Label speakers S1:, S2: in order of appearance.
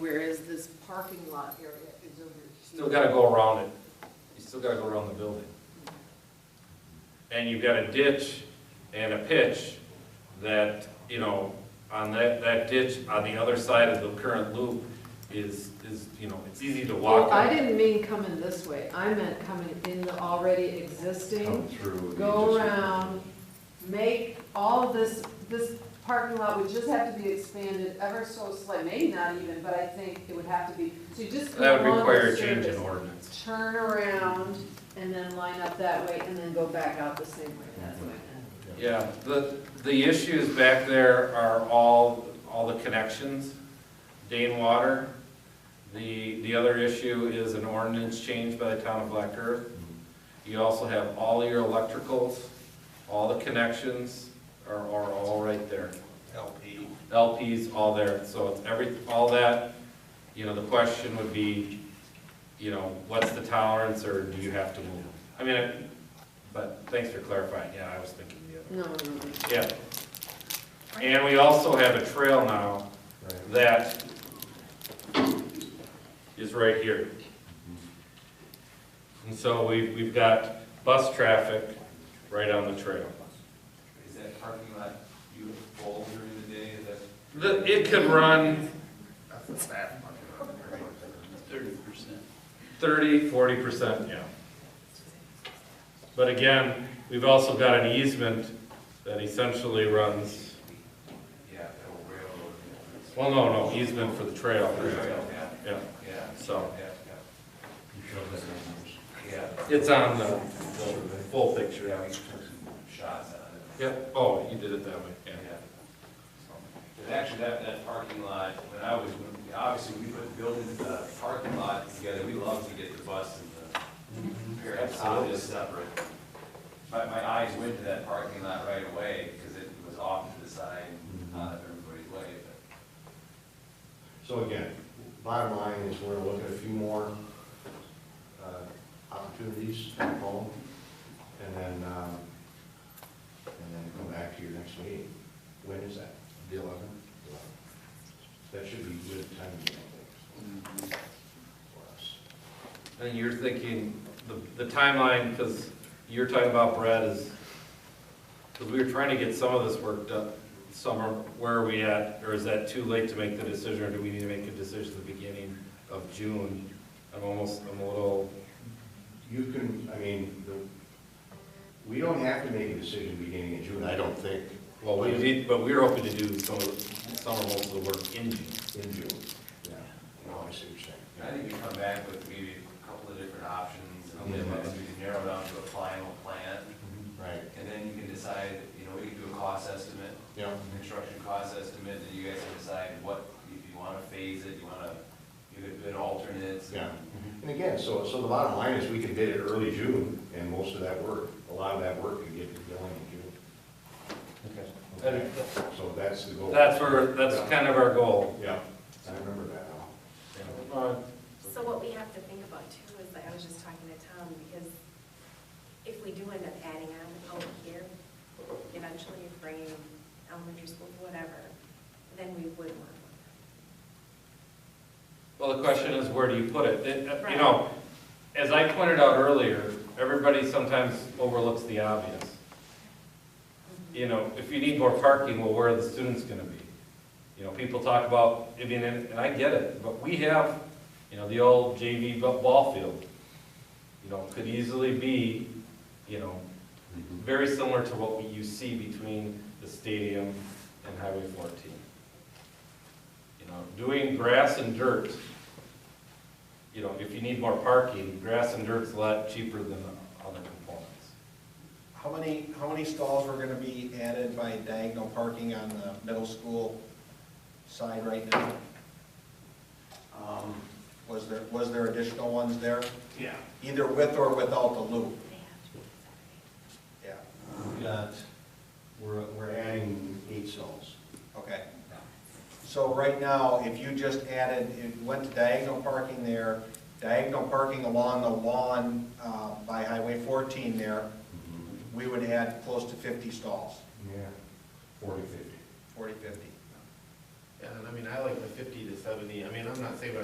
S1: Whereas this parking lot area is over here.
S2: Still gotta go around it, you still gotta go around the building. And you've got a ditch and a pitch that, you know, on that, that ditch, on the other side of the current loop is, is, you know, it's easy to walk.
S3: Well, I didn't mean coming this way, I meant coming in the already existing,
S4: through.
S3: go around, make all of this, this parking lot would just have to be expanded ever so slightly, maybe not even, but I think it would have to be, so you just go
S2: That would
S3: along
S2: require
S3: the
S2: a change in
S3: surface,
S2: ordinance.
S3: Turn around and then line up that way and then go back out the same way, that's what I meant.
S2: Yeah, the, the issues back there are all, all the connections, Dane Water. The, the other issue is an ordinance change by the town of Black Earth. You also have all your electricals, all the connections are, are all right there.
S5: LP.
S2: LP's all there, so it's every, all that, you know, the question would be, you know, what's the tolerance, or do you have to move? I mean, I- but thanks for clarifying, yeah, I was thinking the other.
S3: No, no, no.
S2: Yeah. And we also have a trail now that is right here. And so we, we've got bus traffic right on the trail.
S5: Is that parking lot beautiful during the day, is that?
S2: The- It could run
S5: That's a sad parking lot. Thirty percent.
S2: 30, 40%, yeah. But again, we've also got an easement that essentially runs,
S5: Yeah, that will railroad.
S2: well, no, no, easement for the trail.
S5: Yeah,
S2: Yeah,
S5: yeah,
S2: so
S5: yeah, yeah.
S2: it's on the, the full picture.
S5: Yeah, we took some shots on it.
S2: Yep, oh, you did it that way, yeah.
S5: But actually, that, that parking lot, when I was, when- obviously, we put building the parking lot together, we love to get the bus and the parents out of this separate. My, my eyes went to that parking lot right away, because it was off to the side, out of everybody's way, but.
S4: So again, bottom line is we're gonna look at a few more, uh, opportunities at home, and then, um, and then come back to your next meeting. When is that? The eleventh? That should be good timing, I think, for us.
S2: And you're thinking, the, the timeline, because you're talking about Brad is, because we were trying to get some of this work done, summer, where are we at? Or is that too late to make the decision, or do we need to make a decision at the beginning of June? I'm almost, I'm a little,
S4: You can, I mean, the, we don't have to make a decision beginning in June, I don't think,
S2: well, we need, but we were hoping to do some of, the- some or most of the work in June.
S4: in June. Yeah, no, I see what you're saying.
S5: I think we come back with maybe a couple of different options, and then once we can narrow down to a final plan,
S4: Right,
S5: and then you can decide, you know, we can do a cost estimate,
S4: yeah,
S5: construction cost estimate, and you guys can decide what, if you wanna phase it, you wanna, you could bid alternates.
S4: yeah. And again, so, so the bottom line is we can bid it early June, and most of that work, a lot of that work can get going in June. Okay. So that's the goal.
S2: That's where, that's
S4: Yeah.
S2: kind of our goal.
S4: Yeah, I remember that now.
S6: So what we have to think about too is, like, I was just talking to Tom, because if we do end up adding on out here, eventually bringing elementary school, whatever, then we would want one.
S2: Well, the question is, where do you put it? It- You know, as I pointed out earlier, everybody sometimes overlooks the obvious. You know, if you need more parking, well, where are the students gonna be? You know, people talk about, I mean, and and I get it, but we have, you know, the old JV bu- ball field. You know, could easily be, you know, very similar to what we- you see between the stadium and Highway fourteen. You know, doing grass and dirt, you know, if you need more parking, grass and dirt's a lot cheaper than the other components.
S7: How many, how many stalls were gonna be added by diagonal parking on the middle school side right now?
S5: Um,
S7: Was there, was there additional ones there,
S5: yeah,
S7: either with or without the loop?
S6: They have to be separated.
S7: Yeah,
S4: We got, we're, we're adding eight cells.
S7: okay. So right now, if you just added, it went to diagonal parking there, diagonal parking along the lawn, uh, by Highway fourteen there,
S5: Mm-hmm.
S7: we would add close to fifty stalls,
S4: Yeah. Forty, fifty.
S7: forty, fifty.
S2: Yeah, and I mean, I like the fifty to seventy, I mean, I'm not saying